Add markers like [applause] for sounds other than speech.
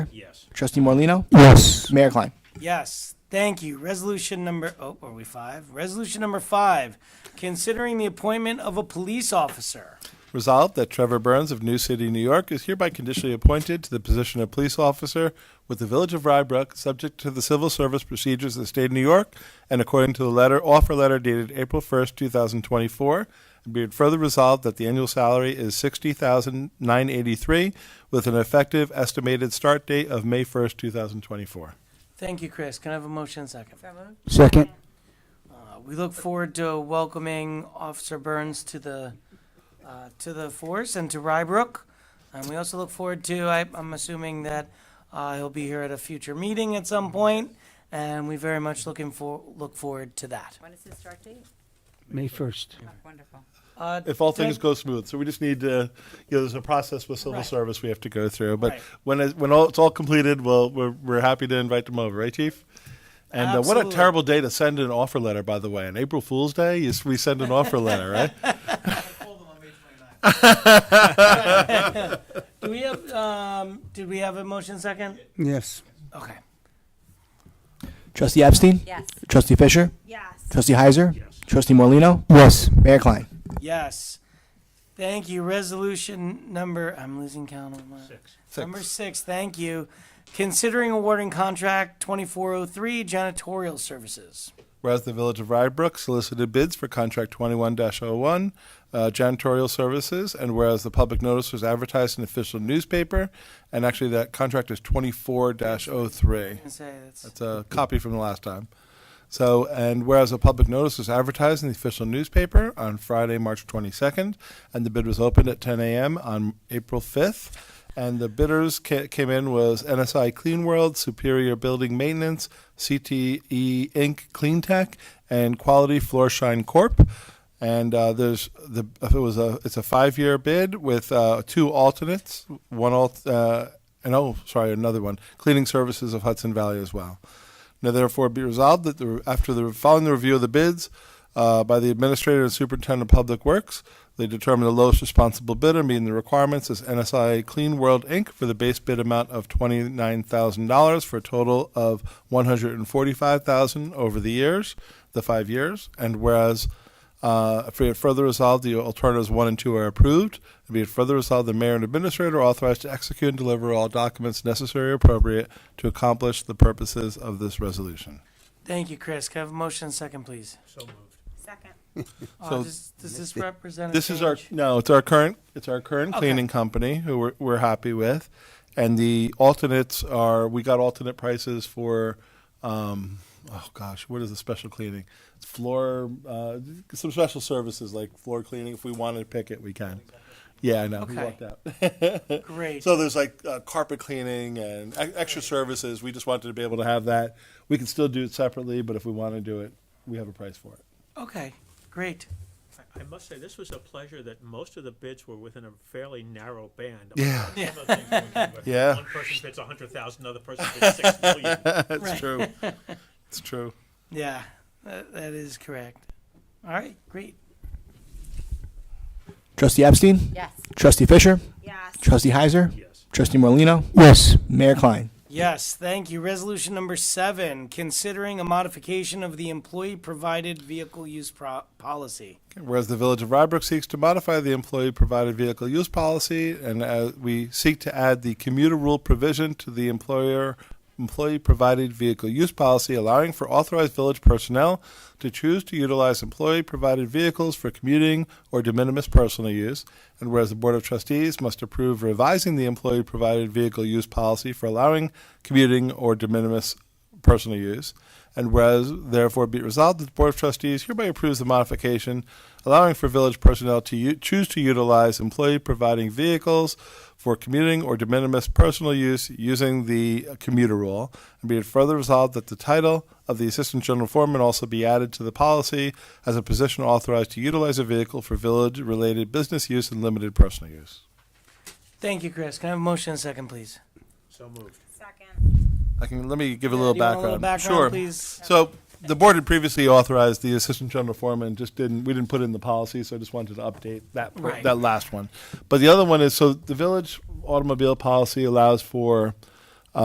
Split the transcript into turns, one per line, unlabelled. Yes.
Trustee Morlino,
Yes.
Mayor Klein.
Yes, thank you. Resolution number, oh, are we five? Resolution number five, considering the appointment of a police officer.
Resolved that Trevor Burns of New City, New York is hereby conditionally appointed to the position of police officer with the Village of Rybrook, subject to the civil service procedures of the state of New York and according to the letter, offer letter dated April 1st, 2024. And be it further resolved that the annual salary is 60983 with an effective estimated start date of May 1st, 2024.
Thank you, Chris. Can I have a motion second?
Second.
Uh, We look forward to welcoming Officer Burns to the, uh, to the force and to Rybrook. And we also look forward to, I, I'm assuming that uh, he'll be here at a future meeting at some point, and we very much looking for, look forward to that.
When is his start date?
May 1st.
Oh, Wonderful.
Uh,
if all things
Thank-
go smooth. So we just need to, you know, there's a process with civil
Right.
service we have to go through. But
Right.
when it, when all, it's all completed, well, we're, we're happy to invite them over, right, Chief? And uh, what a
Absolutely.
terrible day to send an offer letter, by the way. On April Fool's Day, you, s- we send an offer letter,
[laughs]
right? [laughs]
Do we have, um, did we have a motion second?
Yes.
Okay.
Trustee Epstein,
Yes.
Trustee Fisher,
Yes.
Trustee Heiser,
Yes.
Trustee Morlino,
Yes.
Mayor Klein.
Yes. Thank you. Resolution number, I'm losing count on my.
Six.
Number six, thank you. Considering awarding contract 2403 janitorial services.
Whereas the Village of Rybrook solicited bids for contract 21 01, uh, janitorial services, and whereas the public notice was advertised in the official newspaper, and actually that contract is 24 03.
I say that's,
It's a copy from the last time. So, and whereas a public notice was advertised in the official newspaper on Friday, March 22nd, and the bid was opened at 10 a.m. on April 5th, and the bidders ca- came in was NSI Clean World, Superior Building Maintenance, CTE Inc. Clean Tech, and Quality Floor Shine Corp. And uh, there's the if it was a it's a five year bid with uh, two alternates, one alt uh, and oh sorry another one cleaning services of Hudson Valley as well. Now therefore be resolved that the, after the following the review of the bids uh, by the administrator and superintendent of public works, they determined the lowest responsible bidder meeting the requirements is NSI Clean World Inc. for the base bid amount of twenty nine thousand dollars for a total of one hundred and forty five thousand over the years, the five years, and whereas. Uh, for it further resolved, the alternatives one and two are approved. And be it further resolved, the mayor and administrator are authorized to execute and deliver all documents necessary or appropriate to accomplish the purposes of this resolution.
thank you, Chris. Can I have a motion second, please?
So moved.
Second.
Uh,
So-
Does does this represent? a
This is our
change?
no, it's our current it's our current
Okay.
cleaning company who we're, we're happy with, and the alternates are we got alternate prices for, um, oh gosh, what is the special cleaning? It's floor uh, some special services like floor cleaning. If we wanted to pick it, we can. Yeah, I know. We
Okay.
walked out. [laughs]
Great.
So there's like uh, carpet cleaning and e- extra services. We just wanted to be able to have that. We can still do it separately, but if we want to do it, we have a price for it.
Okay, great.
I- I must say, this was a pleasure that most of the bids were within a fairly narrow band.
Yeah.
Some of the things we do, but
[laughs] Yeah.
One person bids a hundred thousand, another person bids six million.
[laughs] [laughs] That's
Right.
true. it's true.
Yeah, that that is correct. All right, great.
Trustee Epstein,
Yes.
Trustee Fisher,
Yes.
Trustee Heiser,
Yes.
Trustee Morlino,
Yes.
Mayor Klein.
Yes, thank you. Resolution number seven, considering a modification of the employee-provided vehicle use pro- policy.
Whereas the Village of Rybrook seeks to modify the employee-provided vehicle use policy, and uh, we seek to add the commuter rule provision to the employer employee-provided vehicle use policy, allowing for authorized village personnel to choose to utilize employee-provided vehicles for commuting or de minimis personal use. And whereas the Board of Trustees must approve revising the employee-provided vehicle use policy for allowing commuting or de minimis personal use. And whereas, therefore, be it resolved that the Board of Trustees hereby approves the modification allowing for village personnel to u- choose to utilize employee providing vehicles for commuting or de minimis personal use using the commuter rule. And be it further resolved that the title of the Assistant General Foreman also be added to the policy as a position authorized to utilize a vehicle for village related business use and limited personal use.
Thank you, Chris. Can I have a motion second, please?
So moved.
Second.
I can let me give a
Yeah,
little
do you want
background.
a little background,
sure.
please?
So the board had previously authorized the assistant general foreman, just didn't, we didn't put it in the policy, so I just wanted to update that, per-
Right.
that last one. But the other one is, so the village automobile policy allows for